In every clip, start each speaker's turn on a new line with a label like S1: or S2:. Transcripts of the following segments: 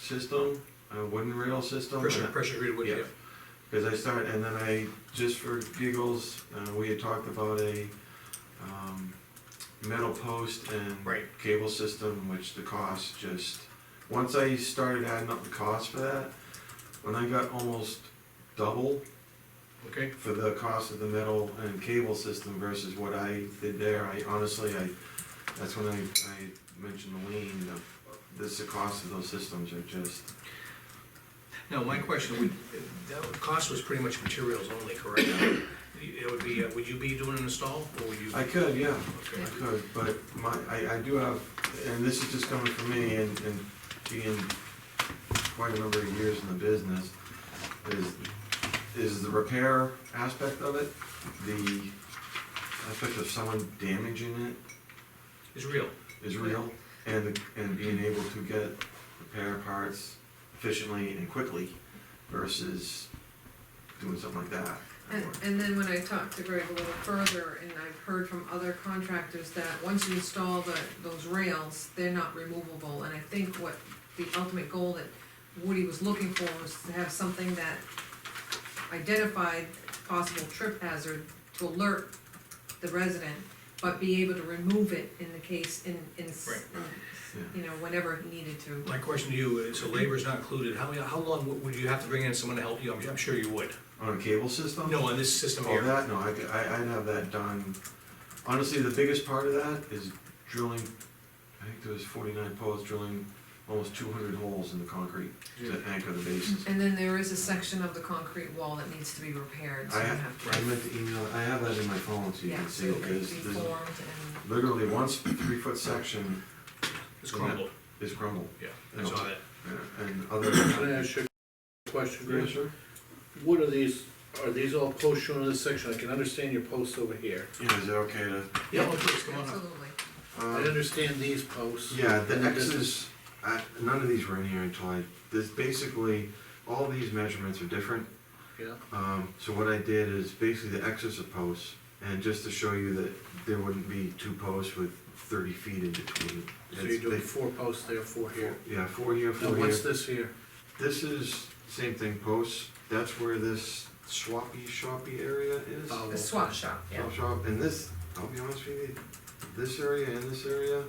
S1: system, a wooden rail system.
S2: Pressure, pressure treated wood,
S1: Yeah.
S2: yeah.
S1: Because I start, and then I, just for giggles, uh, we had talked about a, um, metal post and
S2: Right.
S1: cable system, which the cost just, once I started adding up the cost for that, when I got almost double
S2: Okay,
S1: for the cost of the metal and cable system versus what I did there, I honestly, I, that's when I, I mentioned to Lean, the- this, the cost of those systems are just,
S2: now, my question, would, that would- cost was pretty much materials only, correct? It would be, uh, would you be doing an install, or would you?
S1: I could, yeah.
S2: Okay.
S1: I could, but my, I, I do have, and this is just coming from me and, and being quite a number of years in the business, is, is the repair aspect of it, the aspect of someone damaging it
S2: It's real,
S1: is real, and, and being able to get repair parts efficiently and quickly versus doing something like that.
S3: And, and then when I talked to Greg a little further, and I've heard from other contractors that once you install the, those rails, they're not removable, and I think what the ultimate goal that Woody was looking for was to have something that identified possible trip hazard to alert the resident, but be able to remove it in the case, in, in, s-
S2: Right.
S3: in, you know, whenever he needed to.
S2: my question to you, is, so labor's not included, how, how long would- would you have to bring in someone to help you, I'm, I'm sure you would.
S1: On a cable system?
S2: No, on this system
S1: Oh,
S2: here,
S1: that, no, I, could- I, I'd have that done. Honestly, the biggest part of that is drilling, I think there was forty-nine posts drilling almost two hundred holes in the concrete to anchor the bases.
S3: And then there is a section of the concrete wall that needs to be repaired, so
S1: I
S3: you
S1: have,
S3: have to.
S1: I meant to email, I have that in my phone so you
S3: Yeah,
S1: can
S3: so
S1: see
S3: it
S1: it,
S3: could be
S1: there's, there's
S3: formed
S1: literally one three-foot section
S2: it's crumbled,
S1: is crumbled.
S2: yeah, I saw that.
S1: uh, And other.
S4: Can I ask you a question,
S1: Yeah,
S4: Greg?
S1: sure.
S4: What are these, are these all posts shown in this section? I can understand your posts over here.
S1: Yeah, is it okay to?
S2: Yeah, oh, please,
S3: and,
S2: come on up.
S3: absolutely.
S4: I
S1: um,
S4: understand these posts.
S1: Yeah, the
S4: And this
S1: X's, I, none of these were in here until I, this basically, all these measurements are different.
S4: Yeah,
S1: Um, so what I did is basically the X's are posts, and just to show you that there wouldn't be two posts with thirty feet in between.
S4: so
S1: It's-
S4: you're doing
S1: they-
S4: four posts there, four here.
S1: Yeah, four here,
S4: Now,
S1: four
S4: what's
S1: here.
S4: this here?
S1: This is same thing, posts, that's where this swappy shoppy area is.
S4: Oh,
S3: The swap shop, yeah.
S1: Chop shop, and this, I'll be honest with you, this area and this area,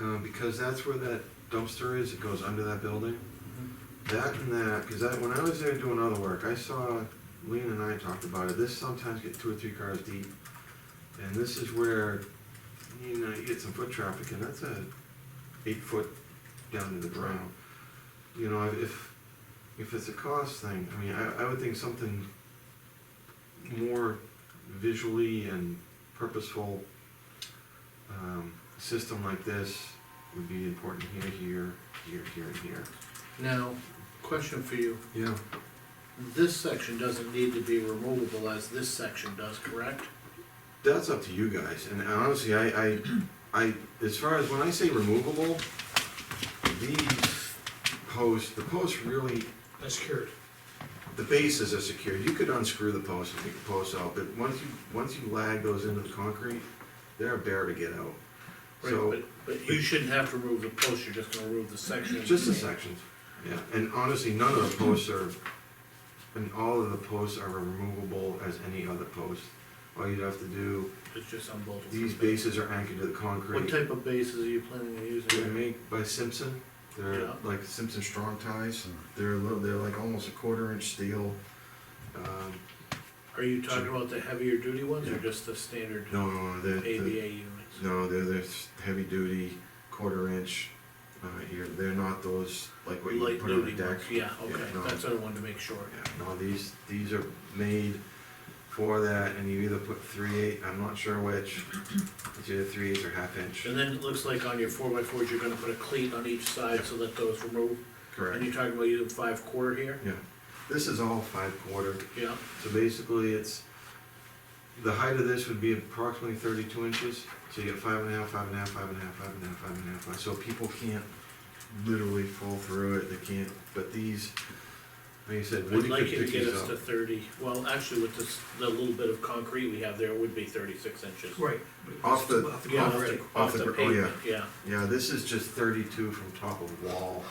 S1: uh, because that's where that dumpster is, it goes under that building.
S4: Mm-hmm.
S1: That and that, cause I, when I was there doing other work, I saw, Lean and I talked about it, this sometimes get two or three cars deep. And this is where, you know, you get some foot traffic, and that's a eight foot down to the ground. You know, if, if it's a cost thing, I mean, I, I would think something more visually and purposeful um, system like this would be important here, here, here, here, and here.
S4: Now, question for you.
S1: Yeah.
S4: This section doesn't need to be removable as this section does, correct?
S1: That's up to you guys, and honestly, I, I, I, as far as when I say removable, these posts, the posts really,
S2: That's secured,
S1: the bases are secured, you could unscrew the posts and take the posts out, but once you, once you lag those into the concrete, they're a bear to get out.
S4: Right,
S1: So-
S4: But, but you shouldn't have to remove the post, you're just gonna remove the section.
S1: Just the sections, yeah, and honestly, none of the posts are, and all of the posts are removable as any other post. All you'd have to do,
S4: It's just unbolted.
S1: these bases are anchored to the
S4: What
S1: concrete.
S4: type of bases are you planning on
S1: They're
S4: using?
S1: made by Simpson, they're
S4: Yeah.
S1: like Simpson strong ties, they're a little, they're like almost a quarter inch steel. Um,
S4: Are you talking about the heavier duty ones
S1: Yeah.
S4: or just the standard
S1: No, no, no, they're, they're-
S4: ABA units?
S1: no, they're, they're heavy duty, quarter inch, uh, you're, they're not those, like what you
S4: Light
S1: put on a
S4: duty
S1: deck.
S4: ones, yeah,
S1: Yeah,
S4: okay,
S1: no.
S4: that's what I wanted to make sure.
S1: Yeah, no, these, these are made for that, and you either put three eight, I'm not sure which, it's either three eight or half inch.
S4: And then it looks like on your four by fours, you're gonna put a cleat on each side so that those remove, and
S1: Correct.
S4: you're talking about using five quarter here?
S1: Yeah, this is all five quarter,
S4: Yeah,
S1: so basically it's, the height of this would be approximately thirty-two inches, so you get five and a half, five and a half, five and a half, five and a half, five and a half, five- so people can't literally fall through it, they can't, but these, like you said,
S4: I'd
S1: Woody
S4: like
S1: could
S4: you to
S1: pick
S4: get
S1: these
S4: us
S1: up.
S4: to thirty, well, actually with this, the little bit of concrete we have there, it would be thirty-six inches.
S2: right.
S1: Off the-
S4: Yeah,
S2: ground
S4: off the,
S2: already.
S1: off
S4: off
S1: the
S4: the
S1: gr- oh, yeah.
S4: pavement, yeah.
S1: Yeah, this is just thirty-two from top of wall.